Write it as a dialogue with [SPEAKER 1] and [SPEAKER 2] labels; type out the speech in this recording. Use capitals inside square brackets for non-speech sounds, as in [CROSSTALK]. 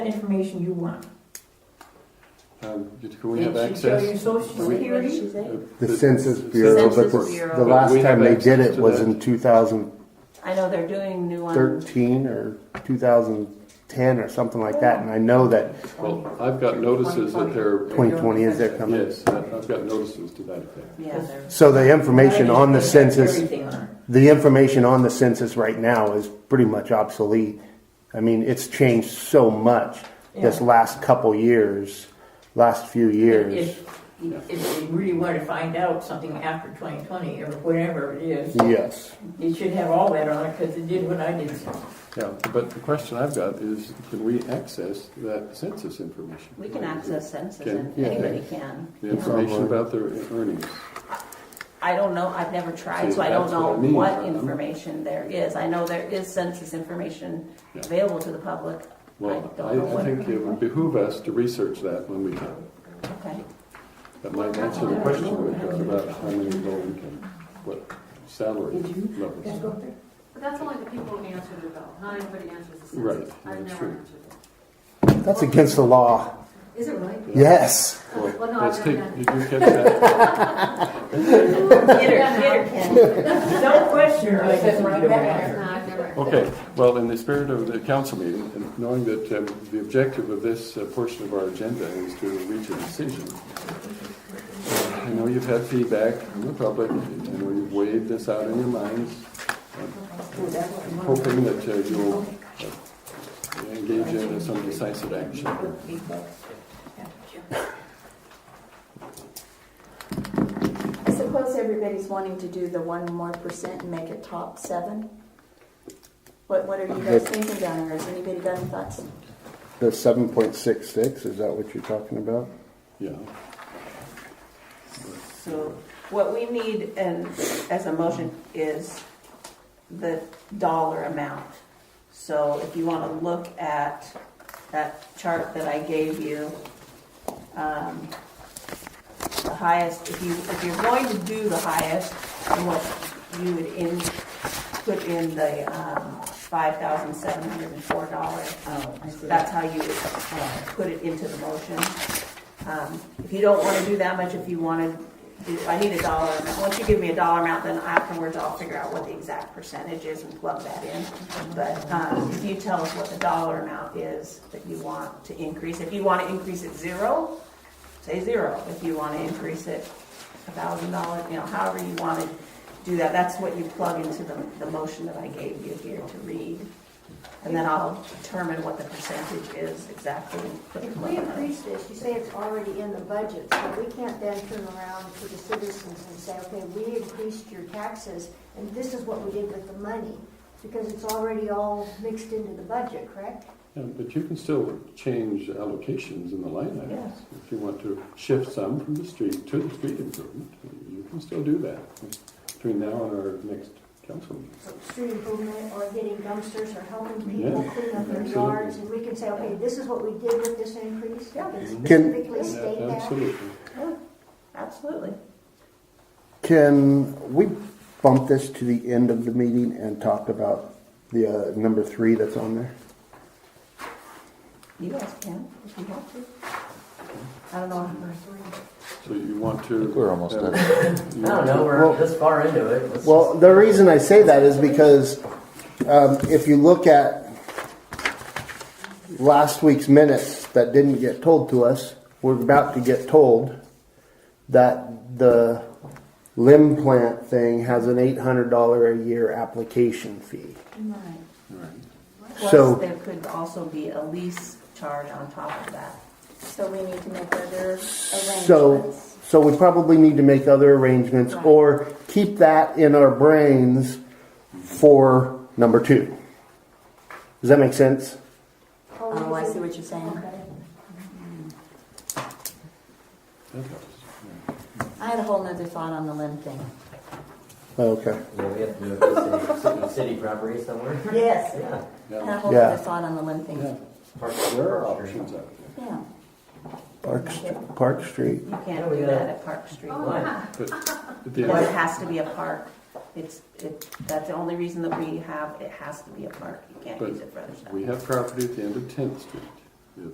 [SPEAKER 1] information you want.
[SPEAKER 2] Um, Can we have
[SPEAKER 1] It should show your
[SPEAKER 2] access?
[SPEAKER 1] social
[SPEAKER 2] We-
[SPEAKER 1] security.
[SPEAKER 2] Uh,
[SPEAKER 3] The Census Bureau, but
[SPEAKER 4] Census
[SPEAKER 3] the,
[SPEAKER 4] Bureau.
[SPEAKER 3] the
[SPEAKER 2] But
[SPEAKER 3] last
[SPEAKER 2] we have
[SPEAKER 3] time they did
[SPEAKER 2] access
[SPEAKER 3] it
[SPEAKER 2] to
[SPEAKER 3] was
[SPEAKER 2] that.
[SPEAKER 3] in two thousand
[SPEAKER 4] I know they're doing new ones.
[SPEAKER 3] thirteen or two thousand ten or something like that, and I know that
[SPEAKER 2] Well, I've got notices that they're,
[SPEAKER 3] twenty twenty is there coming.
[SPEAKER 2] yes, I- I've got notices to that effect.
[SPEAKER 4] Yeah, they're.
[SPEAKER 3] So the information on the census,
[SPEAKER 1] Everything on it.
[SPEAKER 3] the information on the census right now is pretty much obsolete. I mean, it's changed so much this
[SPEAKER 1] Yeah.
[SPEAKER 3] last couple years, last few years.
[SPEAKER 1] If, if you really want to find out something after 2020 or whatever it is,
[SPEAKER 3] Yes.
[SPEAKER 1] you should have all that on it because it did what I did.
[SPEAKER 2] Yeah, but the question I've got is, can we access that census information?
[SPEAKER 4] We can access census,
[SPEAKER 2] Can-
[SPEAKER 4] and
[SPEAKER 2] yeah.
[SPEAKER 4] anybody can.
[SPEAKER 2] The information about their earnings.
[SPEAKER 4] I don't know, I've never tried,
[SPEAKER 2] See,
[SPEAKER 4] so I don't
[SPEAKER 2] that's what
[SPEAKER 4] know
[SPEAKER 2] I mean.
[SPEAKER 4] what information there is. I know there is census information
[SPEAKER 2] Yeah.
[SPEAKER 4] available to the public. I
[SPEAKER 2] Well,
[SPEAKER 4] don't
[SPEAKER 2] I,
[SPEAKER 4] know
[SPEAKER 2] I
[SPEAKER 4] what,
[SPEAKER 2] think it would behoove us to research that when we can.
[SPEAKER 4] okay.
[SPEAKER 2] That might answer the question we've got about how many golden can, what salary levels.
[SPEAKER 5] But that's only the people who answer the bell, not everybody answers the
[SPEAKER 2] Right,
[SPEAKER 5] census. I've
[SPEAKER 2] that's
[SPEAKER 5] never
[SPEAKER 2] true.
[SPEAKER 5] answered it.
[SPEAKER 3] That's against the law.
[SPEAKER 5] Is it really?
[SPEAKER 3] Yes.
[SPEAKER 5] Well,
[SPEAKER 2] Well,
[SPEAKER 5] no,
[SPEAKER 2] let's
[SPEAKER 5] I've
[SPEAKER 2] take,
[SPEAKER 5] never done
[SPEAKER 2] did you catch that?
[SPEAKER 4] Get her, get her, Ken.
[SPEAKER 1] No question, I said right back.
[SPEAKER 5] it. No, I've never.
[SPEAKER 2] Okay, well, in the spirit of the council meeting, and knowing that um, the objective of this uh, portion of our agenda is to reach a decision, uh, I know you've had feedback from the public, and we've weighed this out in your minds. I'm Hoping that uh, you'll uh, engage in some decisive action.
[SPEAKER 6] [LAUGHS] I suppose everybody's wanting to do the one more percent and make it top seven. What, what are
[SPEAKER 2] Uh,
[SPEAKER 6] you guys thinking down there? Has anybody got any thoughts?
[SPEAKER 3] The seven point six six, is that what you're talking about?
[SPEAKER 2] Yeah,
[SPEAKER 4] So what we need and as a motion is the dollar amount. So if you want to look at that chart that I gave you, um, the highest, if you, if you're going to do the highest, then what you would in, put in the, um, five thousand seven hundred and four dollars.
[SPEAKER 1] Oh, I see.
[SPEAKER 4] That's how you would uh, put it into the motion. Um, If you don't want to do that much, if you want to do, I need a dollar amount. Once you give me a dollar amount, then afterwards I'll figure out what the exact percentage is and plug that in. But um, if you tell us what the dollar amount is that you want to increase, if you want to increase it zero, say zero. If you want to increase it a thousand dollars, you know, however you want to do that, that's what you plug into the, the motion that I gave you here to read. And then I'll determine what the percentage is exactly. and put it
[SPEAKER 7] If
[SPEAKER 4] in
[SPEAKER 7] we
[SPEAKER 4] my mind.
[SPEAKER 7] increase this, you say it's already in the budget, so we can't then turn around to the citizens and say, okay, we increased your taxes, and this is what we did with the money, because it's already all mixed into the budget, correct?
[SPEAKER 2] Yeah, but you can still change allocations in the line items.
[SPEAKER 4] Yes.
[SPEAKER 2] If you want to shift some from the street to the street improvement, you can still do that between now and our next council meeting.
[SPEAKER 7] So Street improvement, or getting dumpsters, or helping people
[SPEAKER 2] Yeah,
[SPEAKER 7] clean up their
[SPEAKER 2] absolutely.
[SPEAKER 7] yards, and we can say, okay, this is what we did with this increase.
[SPEAKER 4] Yeah.
[SPEAKER 7] It's
[SPEAKER 3] Can-
[SPEAKER 7] Specifically state
[SPEAKER 2] Yeah,
[SPEAKER 7] that.
[SPEAKER 2] Absolutely.
[SPEAKER 4] Absolutely.
[SPEAKER 3] Can we bump this to the end of the meeting and talk about the uh, number three that's on there?
[SPEAKER 4] You guys can, if you want to. I don't know.
[SPEAKER 2] So you want to.
[SPEAKER 8] think we're almost
[SPEAKER 2] have- you
[SPEAKER 9] [LAUGHS] I don't
[SPEAKER 2] want
[SPEAKER 9] know,
[SPEAKER 2] to-
[SPEAKER 9] we're this far into it. Let's-
[SPEAKER 3] Well, the reason I say that is because um, if you look at last week's minutes that didn't get told to us, we're about to get told that the limb plant thing has an $800 a year application fee. So-
[SPEAKER 4] Plus, there could also be a lease charge on top of that.
[SPEAKER 6] So we need to make other
[SPEAKER 3] So,
[SPEAKER 6] arrangements.
[SPEAKER 3] so we probably need to make other arrangements
[SPEAKER 4] Right.
[SPEAKER 3] or keep that in our brains for number two. Does that make sense?
[SPEAKER 7] Or we
[SPEAKER 6] Oh, I
[SPEAKER 7] can-
[SPEAKER 6] see what you're saying.
[SPEAKER 7] Okay.
[SPEAKER 2] That helps.
[SPEAKER 6] I had a whole nother thought on the limb thing.
[SPEAKER 3] Okay.
[SPEAKER 9] Yeah, we have to move to city, city property somewhere.
[SPEAKER 6] Yes.
[SPEAKER 9] Yeah.
[SPEAKER 6] I had a
[SPEAKER 2] Yeah.
[SPEAKER 6] whole
[SPEAKER 3] Yeah.
[SPEAKER 6] nother thought on the limb
[SPEAKER 2] Yeah.
[SPEAKER 6] thing.
[SPEAKER 9] Park-
[SPEAKER 2] There are
[SPEAKER 9] Park Street.
[SPEAKER 2] options out there.
[SPEAKER 6] Yeah.
[SPEAKER 3] Park, St- Park Street.
[SPEAKER 4] You can't do that at Park Street.
[SPEAKER 5] Oh, yeah.
[SPEAKER 2] But
[SPEAKER 4] Or it
[SPEAKER 2] the-
[SPEAKER 4] has to be a park. It's, it, that's the only reason that we have, it has to be a park. You can't
[SPEAKER 2] But
[SPEAKER 4] use it for other stuff.
[SPEAKER 2] We have property at the end of Tenth Street.